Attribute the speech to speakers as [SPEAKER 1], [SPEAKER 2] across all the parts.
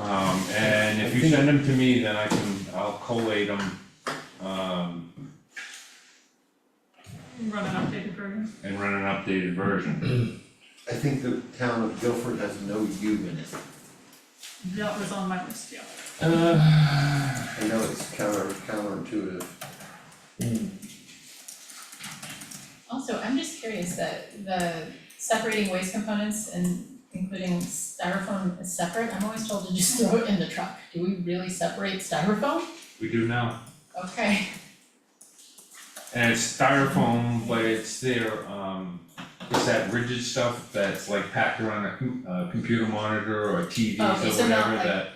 [SPEAKER 1] Um, If you send them to me, then I can, I'll collate them, um,
[SPEAKER 2] Run an updated program.
[SPEAKER 1] and run an updated version.
[SPEAKER 3] I think the town of Guilford has no U in it.
[SPEAKER 2] That was on my list, yeah.
[SPEAKER 4] Uh.
[SPEAKER 3] I know it's counter counterintuitive.
[SPEAKER 4] Also, I'm just curious that the separating waste components and including styrofoam is separate, I'm always told to just throw it in the truck. Do we really separate styrofoam?
[SPEAKER 1] We do now,
[SPEAKER 4] Okay,
[SPEAKER 1] and it's styrofoam, but it's their, um, it's that rigid stuff that's like packed around a com- a computer monitor or TVs
[SPEAKER 4] Oh, okay,
[SPEAKER 1] or
[SPEAKER 4] so not
[SPEAKER 1] whatever
[SPEAKER 4] like-
[SPEAKER 1] that.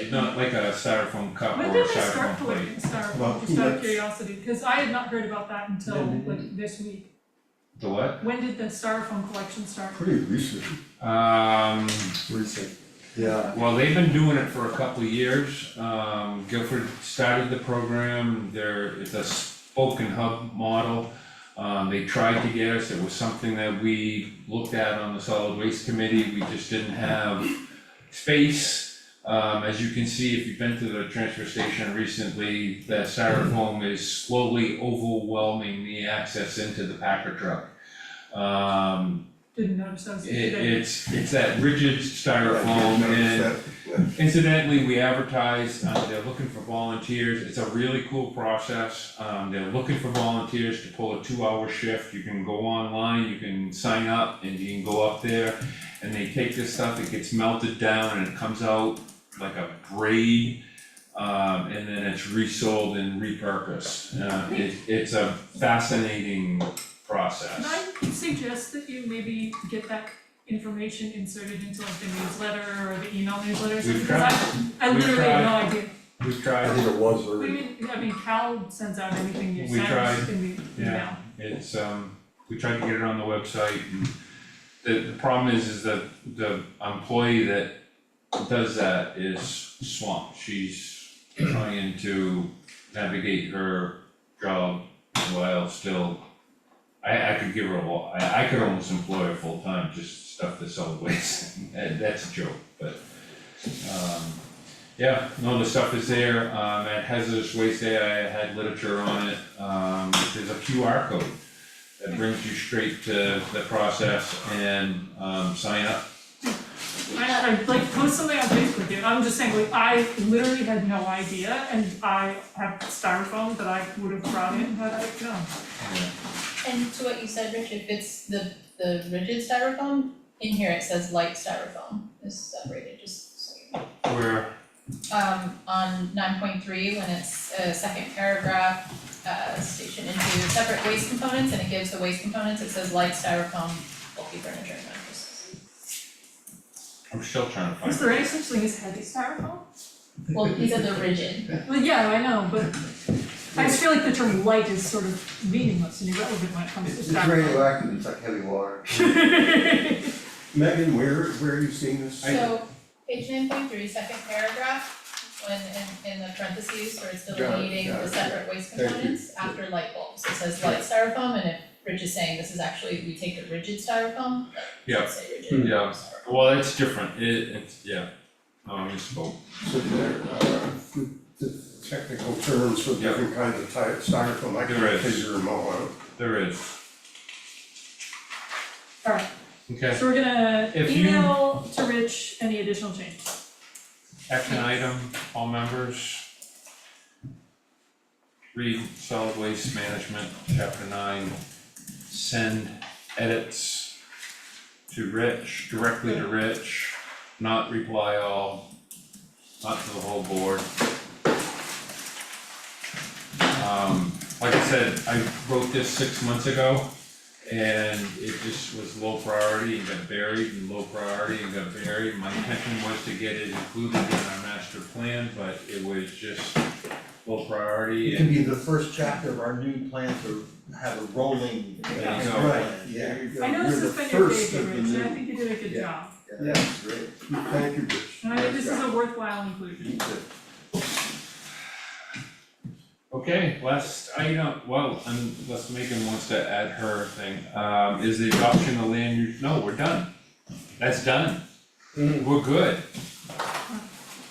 [SPEAKER 1] It's not like a styrofoam cup Uh, or
[SPEAKER 2] When
[SPEAKER 1] a
[SPEAKER 2] did they start
[SPEAKER 1] styrofoam plate.
[SPEAKER 2] collecting styrofoam,
[SPEAKER 3] Well,
[SPEAKER 2] just out of
[SPEAKER 3] let's-
[SPEAKER 2] curiosity, because I had not heard about that until
[SPEAKER 3] Yeah, they
[SPEAKER 2] like this week.
[SPEAKER 1] The what?
[SPEAKER 2] When did the styrofoam collection start?
[SPEAKER 3] Pretty recent.
[SPEAKER 1] Um,
[SPEAKER 3] Recent. Yeah.
[SPEAKER 1] Well, they've been doing it for a couple of years. Um, Guilford started the program, there, it's a spoken hub model. Um, they tried to get us, it was something that we looked at on the solid waste committee, we just didn't have space. Um, as you can see, if you've been to the transfer station recently, that styrofoam is slowly overwhelming the access into the packer truck. Um,
[SPEAKER 2] Didn't notice that was
[SPEAKER 1] it,
[SPEAKER 2] today.
[SPEAKER 1] it's, it's that rigid styrofoam and incidentally, we advertise, uh, they're looking for volunteers, it's a really cool process. Um, they're looking for volunteers to pull a two-hour shift, you can go online, you can sign up and you can go up there. And they take this stuff, it gets melted down and it comes out like a braid. Um, and then it's resold and repurposed, uh, it, it's a fascinating process.
[SPEAKER 2] Can I suggest that you maybe get that information inserted into like the newsletter or the email newsletter or something?
[SPEAKER 1] We've
[SPEAKER 2] Because I, I
[SPEAKER 1] We've
[SPEAKER 2] literally have no idea.
[SPEAKER 1] We've tried
[SPEAKER 3] I think it was
[SPEAKER 2] I
[SPEAKER 3] already.
[SPEAKER 2] mean, I mean, Cal sends out anything you
[SPEAKER 1] We
[SPEAKER 2] send
[SPEAKER 1] tried,
[SPEAKER 2] in the email.
[SPEAKER 1] yeah. It's, um, we tried to get it on the website and the, the problem is, is that the employee that does that is swamped. She's trying to navigate her job while still, I, I could give her a lot, I, I could almost employ her full-time, just stuff this solid waste. And that's a joke, but, um, yeah, no, the stuff is there, um, at Hazardous Waste Day, I had literature on it, um, there's a QR code that brings you straight to the process and, um, sign up.
[SPEAKER 2] I, I like post something on Facebook, dude, I'm just saying, like, I literally had no idea, and I have styrofoam that I would have brought in had I known.
[SPEAKER 4] and to what you said, Rich, if it's the, the rigid styrofoam, in here it says light styrofoam is separated, just so you know.
[SPEAKER 1] Where,
[SPEAKER 4] Um, on nine point three, when it's, uh, second paragraph, uh, station into separate waste components, and it gives the waste components, it says light styrofoam, bulky furniture and mattresses.
[SPEAKER 1] I'm still trying to find.
[SPEAKER 2] Is there any such thing as heavy styrofoam?
[SPEAKER 4] Well, these are the rigid,
[SPEAKER 2] Well, yeah, I know, but I just feel like the term light is sort of meaningless and irrelevant when it comes
[SPEAKER 3] It's
[SPEAKER 2] to
[SPEAKER 3] it's
[SPEAKER 2] styrofoam.
[SPEAKER 3] radioactive, it's like heavy water.
[SPEAKER 5] Megan, where, where are you seeing this?
[SPEAKER 4] so page nine point three, second paragraph, when in in the parentheses where it's delineating
[SPEAKER 3] got
[SPEAKER 4] the
[SPEAKER 3] it,
[SPEAKER 4] separate waste
[SPEAKER 3] Thank you.
[SPEAKER 4] components after light bulbs, it says light styrofoam, and if Rich is saying this is actually, we take the rigid styrofoam,
[SPEAKER 1] Yeah.
[SPEAKER 4] let's say rigid
[SPEAKER 3] Hmm.
[SPEAKER 1] Yeah.
[SPEAKER 4] styrofoam.
[SPEAKER 1] Well, it's different, it, it's, yeah, Oh, no, I misspoke.
[SPEAKER 5] So there, uh, the- the technical terms for
[SPEAKER 1] Yeah.
[SPEAKER 5] different kinds of ty- styrofoam, I
[SPEAKER 1] There
[SPEAKER 5] can't
[SPEAKER 1] is.
[SPEAKER 5] figure them all out.
[SPEAKER 1] There is,
[SPEAKER 2] Alright,
[SPEAKER 1] okay,
[SPEAKER 2] so we're gonna
[SPEAKER 1] If you-
[SPEAKER 2] email to Rich any additional changes.
[SPEAKER 1] action item, all members. Read solid waste management, chapter nine, send edits to Rich, directly to Rich, not reply all, not to the whole board. Um, like I said, I wrote this six months ago. And it just was low priority and got buried and low priority and got buried. My intention was to get it included in our master plan, but it was just low priority
[SPEAKER 3] It can
[SPEAKER 1] and
[SPEAKER 3] be the first chapter of our new plan to have a rolling.
[SPEAKER 1] Yeah.
[SPEAKER 3] Yeah, Right, yeah.
[SPEAKER 2] I know this has been your favorite, Rich, and I think you did a good
[SPEAKER 3] Yeah.
[SPEAKER 2] job,
[SPEAKER 3] Yeah, that's great.
[SPEAKER 5] Thank you, Rich.
[SPEAKER 2] and I think this is
[SPEAKER 5] Nice
[SPEAKER 2] a
[SPEAKER 5] job.
[SPEAKER 2] worthwhile inclusion.
[SPEAKER 3] You did.
[SPEAKER 1] Okay, last item, well, and unless Megan wants to add her thing, um, is the adoption of land use, no, we're done. That's done.
[SPEAKER 5] Mm.
[SPEAKER 3] Mm-hmm.
[SPEAKER 1] We're good.